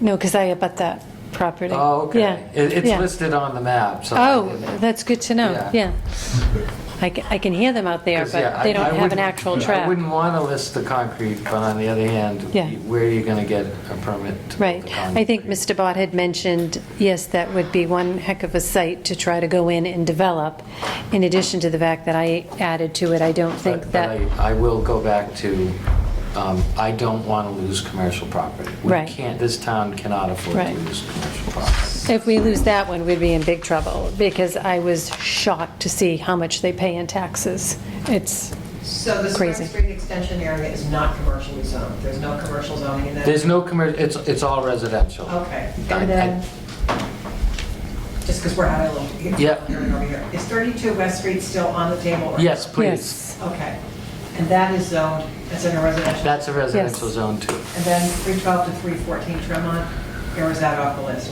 No, because I about that property. Oh, Yeah, okay. It- It's yeah. listed on the map, so. I Oh, didn't- that's good to know, Yeah. yeah. I ca- I can hear them out there, 'cause, yeah, but they I- I don't have an wouldn't- actual I track. wouldn't want to list the concrete, but on the other hand, Yeah. where are you going to get a permit? to Right. put the I think concrete? Mr. Bott had mentioned, yes, that would be one heck of a site to try to go in and develop. In addition to the fact that I added to it, I don't But- think but that, I I will go back to, um, I don't want to lose commercial property. Right. We can't, this town cannot afford to Right. lose commercial property. if we lose that one, we'd be in big trouble, because I was shocked to see how much they pay in taxes. It's, So the Crazy. Spring Street extension area is not commercially zoned, there's no commercial zoning in that? There's no commercial, it's, it's all residential. Okay, I- I- and then, just because we're out of loop. Yeah. Over here, is 32 West Street still on the table? or- Yes, please. yes. Okay, and that is zoned, that's in a residential? That's a residential zone too. And then 312 to 314 Tremont, or is that off the list?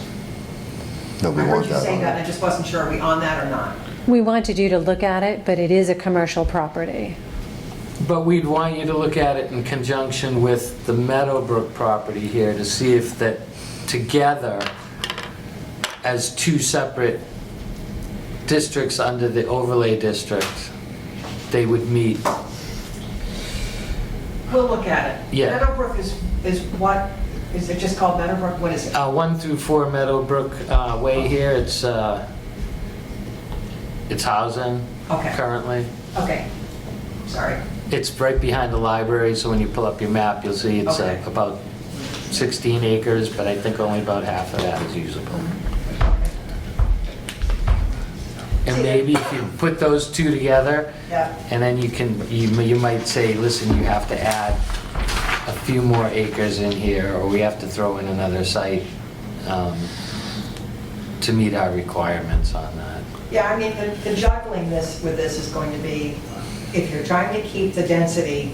No, we want I heard you that say on that, and there. I just wasn't sure, are we on that or not? We wanted you to look at it, but it is a commercial property. But we'd want you to look at it in conjunction with the Meadowbrook property here to see if that, together, as two separate districts under the overlay district, they would meet. Uh, We'll look at it. Yeah. Meadowbrook is, is what, is it just called Meadowbrook, what is it? Uh, One through four Meadowbrook uh, Way here, it's, uh, it's housing Okay. currently. Okay, sorry. It's right behind the library, so when you pull up your map, you'll see it's uh, Okay. about 16 acres, but I think only about half of that is usable. And maybe if you put those two together, Yeah. and then you can, you you might say, listen, you have to add a few more acres in here, or we have to throw in another site um, to meet our requirements on that. Yeah, I mean, the- the juggling this, with this is going to be, if you're trying to keep the density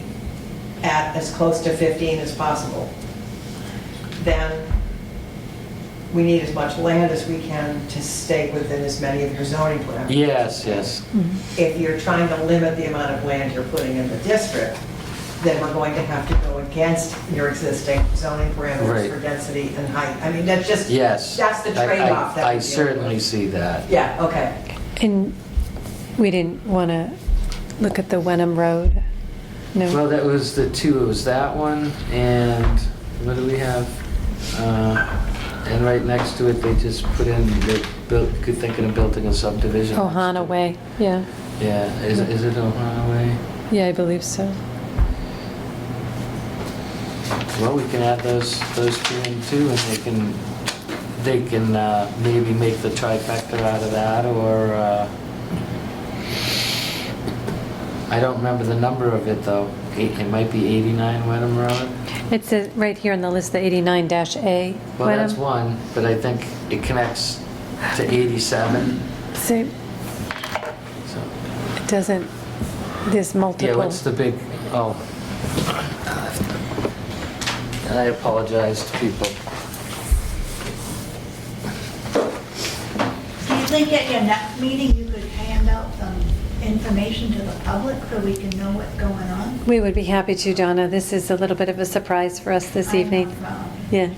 at as close to 15 as possible, then we need as much land as we can to stay within as many of your zoning parameters. Yes, yes, If you're trying to limit the amount of land you're putting in the district, then we're going to have to go against your existing zoning Right. parameters for density and height. I mean, that's just, yes. that's the I- I- trade-off that I we're dealing with. certainly see that. Yeah, okay. And we didn't want to look at the Wenham Road? Well, No? that was the two, it was that one, and what do we have? Uh, And right next to it, they just put in, they built, good thinking of building a subdivision. Ohana Way, yeah. Yeah, is is it Ohana Way? Yeah, I believe so. Well, we can add those, those two in too, and they can, they can uh, maybe make the trifecta out of that, or, uh, I don't remember the number of it, though. Eight- It might be 89 Wenham Road? It says, right here on the list, the 89-A. Well, that's um, one, but I think it connects to 87, See, so. it doesn't, there's Yeah, multiple. what's the big, oh. And I apologize to people. Do you think at your next meeting, you could hand out some information to the public so we can know what's going on? We would be happy to, Donna. This is a little bit of a surprise for us this evening. Yeah,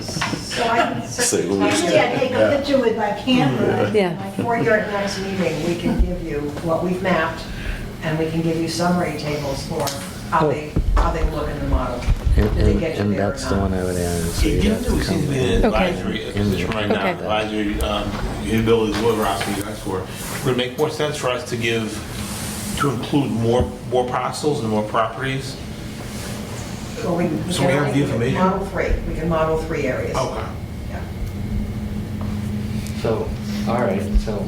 So I can Say the certainly- least. Usually I take a picture with my camera. Yeah. For your next meeting, we can give you what we've mapped, and we can give you summary tables for how they, how they look in the model. Did they get you Oh. And there or that's the not? one I would add. is It you'd have used to to seem to come be in. an Okay. advisory Mm-hmm. position right now, Okay. advisory, um, you ability to deliver options you asked for. Would it make more sense for us to give, to include more, more parcels and more properties? Well, we- we So we can have only the information. Model three, we can model three areas. Okay. Yeah. So, all right, so,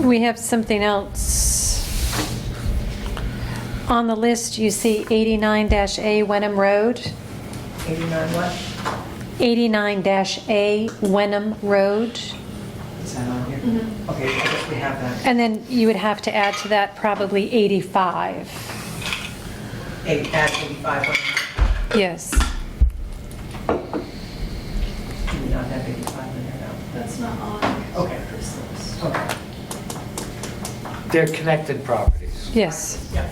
we have something else. On the list, you see 89-A Wenham Road. 89 what? 89-A Wenham Road. Is that on here? Okay, I guess we have that. And then you would have to add to that probably 85. Eight, add 85, what- Yes. do we not have 85 in there now? That's not on. Okay. Okay, they're connected properties. Yes. yeah.